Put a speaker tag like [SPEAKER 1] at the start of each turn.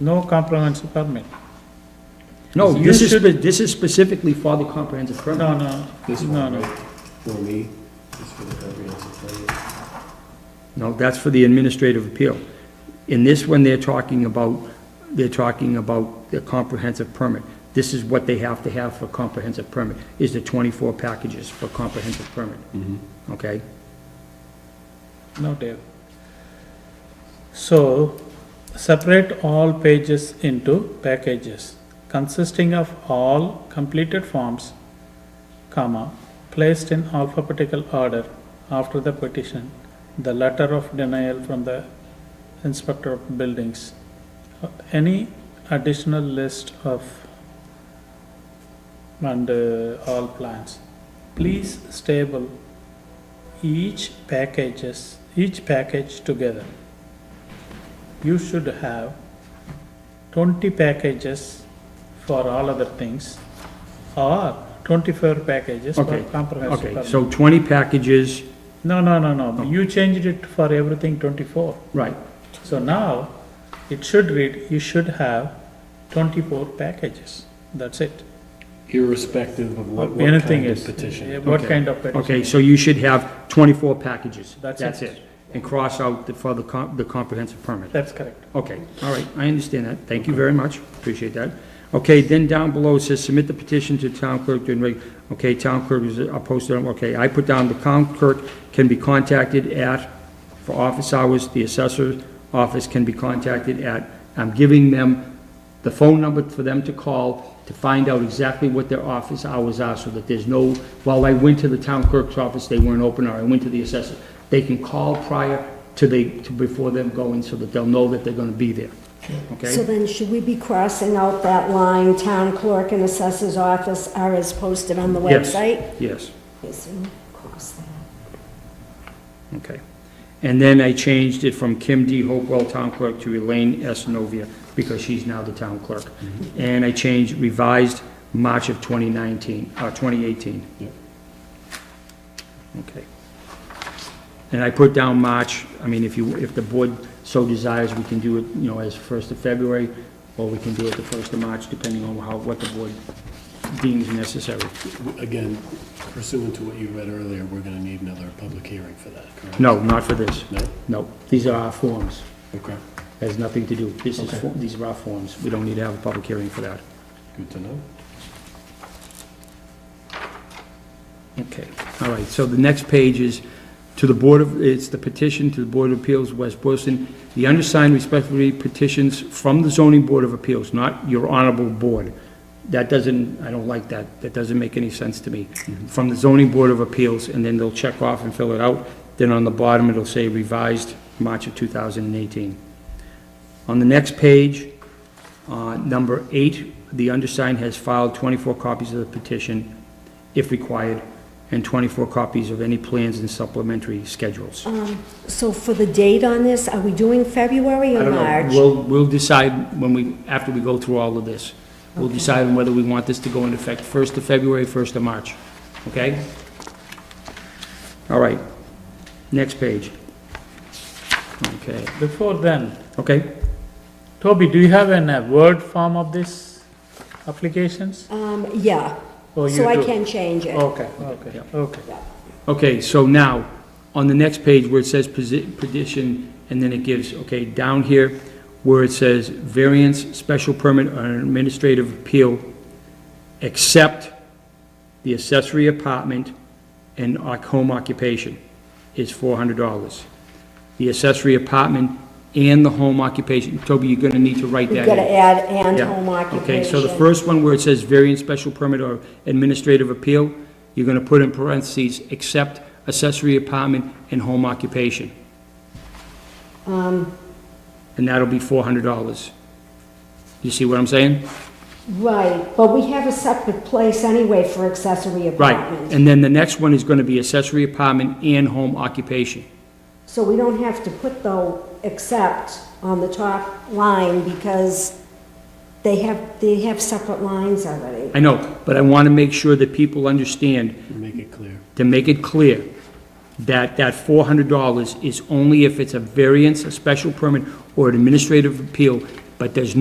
[SPEAKER 1] no comprehensive permit.
[SPEAKER 2] No,
[SPEAKER 1] You
[SPEAKER 2] this is,
[SPEAKER 1] should-
[SPEAKER 2] spe- this is specifically for the comprehensive permit.
[SPEAKER 1] No, no,
[SPEAKER 3] This
[SPEAKER 1] no,
[SPEAKER 3] one,
[SPEAKER 1] no.
[SPEAKER 3] right? For me, it's for the comprehensive plan.
[SPEAKER 2] No, that's for the administrative appeal. In this one, they're talking about, they're talking about the comprehensive permit. This is what they have to have for comprehensive permit, is the 24 packages for comprehensive permit.
[SPEAKER 1] Mm-hmm.
[SPEAKER 2] Okay?
[SPEAKER 1] No, Dave. So, separate all pages into packages consisting of all completed forms, comma, placed in alphabetical order after the petition, the letter of denial from the inspector of buildings, uh, any additional list of and uh, all plans. Please stable each packages, each package together. You should have twenty packages for all other things, or twenty-four packages for
[SPEAKER 2] Okay,
[SPEAKER 1] comprehensive
[SPEAKER 2] Okay,
[SPEAKER 1] permit.
[SPEAKER 2] so 20 packages,
[SPEAKER 1] No, no, no, no, you changed it for everything twenty-four,
[SPEAKER 2] right.
[SPEAKER 1] so now, it should read, you should have twenty-four packages, that's it.
[SPEAKER 3] Irrespective of what, what
[SPEAKER 1] Anything
[SPEAKER 3] kind of
[SPEAKER 1] is-
[SPEAKER 3] petition.
[SPEAKER 1] yeah, What
[SPEAKER 2] Okay.
[SPEAKER 1] kind of petition?
[SPEAKER 2] Okay, so you should have 24 packages.
[SPEAKER 1] That's it.
[SPEAKER 2] And cross out the, for the com- the comprehensive permit.
[SPEAKER 1] That's correct.
[SPEAKER 2] Okay, all right, I understand that. Thank you very much, appreciate that. Okay, then down below it says, submit the petition to town clerk during reg, okay, town clerk is, I posted, on- okay, I put down the town clerk can be contacted at, for office hours, the assessor's office can be contacted at, I'm giving them the phone number for them to call to find out exactly what their office hours are, so that there's no, while I went to the town clerk's office, they weren't open, or I went to the assessor. They can call prior to they, to before them going, so that they'll know that they're gonna be there,
[SPEAKER 4] So
[SPEAKER 2] okay?
[SPEAKER 4] then, should we be crossing out that line, town clerk and assessor's office are as posted on the
[SPEAKER 2] Yes.
[SPEAKER 4] website?
[SPEAKER 2] Yes,
[SPEAKER 4] Yes. Cross that.
[SPEAKER 2] okay. And then I changed it from Kim D. Hopewell, town clerk, to Elaine S. Novia, because she's now the town clerk. And I changed revised March of twenty nineteen, uh, twenty eighteen.
[SPEAKER 3] Yep.
[SPEAKER 2] Okay. And I put down March, I mean, if you, if the board so desires, we can do it, you know, as first of February, or we can do it the first of March, depending on how, what the board deems necessary.
[SPEAKER 3] Again, pursuant to what you read earlier, we're gonna need another public hearing for that, correct?
[SPEAKER 2] No, not for this.
[SPEAKER 3] No?
[SPEAKER 2] No, these are our forms,
[SPEAKER 3] Okay,
[SPEAKER 2] has nothing to do, this is, for- these are our forms, we don't need to have a public hearing for that.
[SPEAKER 3] good to know.
[SPEAKER 2] Okay, all right, so the next page is to the Board of, it's the petition to the Board of Appeals, West Boylston. The undersigned respectfully petitions from the zoning board of appeals, not your honorable board. That doesn't, I don't like that, that doesn't make any sense to me. From the zoning board of appeals, and then they'll check off and fill it out. Then on the bottom, it'll say revised March of 2018. On the next page, uh, number eight, the undersigned has filed 24 copies of the petition, if required, and 24 copies of any plans and supplementary schedules.
[SPEAKER 4] So for the date on this, are we doing February
[SPEAKER 2] I
[SPEAKER 4] or
[SPEAKER 2] don't
[SPEAKER 4] March?
[SPEAKER 2] know, we'll, we'll decide when we, after we go through all of this. We'll decide on whether we want this to go into effect 1st of February, 1st of March, okay? All right, next page. Okay,
[SPEAKER 1] Before then,
[SPEAKER 2] okay,
[SPEAKER 1] Toby, do you have an, a Word form of this applications?
[SPEAKER 4] Um, yeah.
[SPEAKER 1] Oh, you
[SPEAKER 4] So I
[SPEAKER 1] do.
[SPEAKER 4] can change it.
[SPEAKER 2] Oh,
[SPEAKER 1] Okay, okay, okay.
[SPEAKER 2] okay, so now, on the next page where it says posi- petition, and then it gives, okay, down here, where it says variance, special permit, or administrative appeal, except the accessory apartment and oc- home occupation is four hundred dollars. The accessory apartment and the home occupation, Toby, you're gonna need to write
[SPEAKER 4] You
[SPEAKER 2] that
[SPEAKER 4] gotta
[SPEAKER 2] in.
[SPEAKER 4] add and
[SPEAKER 2] Yeah.
[SPEAKER 4] home occupation.
[SPEAKER 2] Okay, so the first one where it says variance, special permit, or administrative appeal, you're gonna put in parentheses, except accessory apartment and home occupation. And that'll be four hundred dollars. You see what I'm saying?
[SPEAKER 4] Right, but we have a separate place anyway for accessory
[SPEAKER 2] Right,
[SPEAKER 4] apartments.
[SPEAKER 2] and then the next one is gonna be accessory apartment and home occupation.
[SPEAKER 4] So we don't have to put though, except on the top line because they have, they have separate lines already.
[SPEAKER 2] I know, but I wanna make sure that people understand
[SPEAKER 3] Make it clear.
[SPEAKER 2] to make it clear that that four hundred dollars is only if it's a variance, a special permit, or an administrative appeal, but there's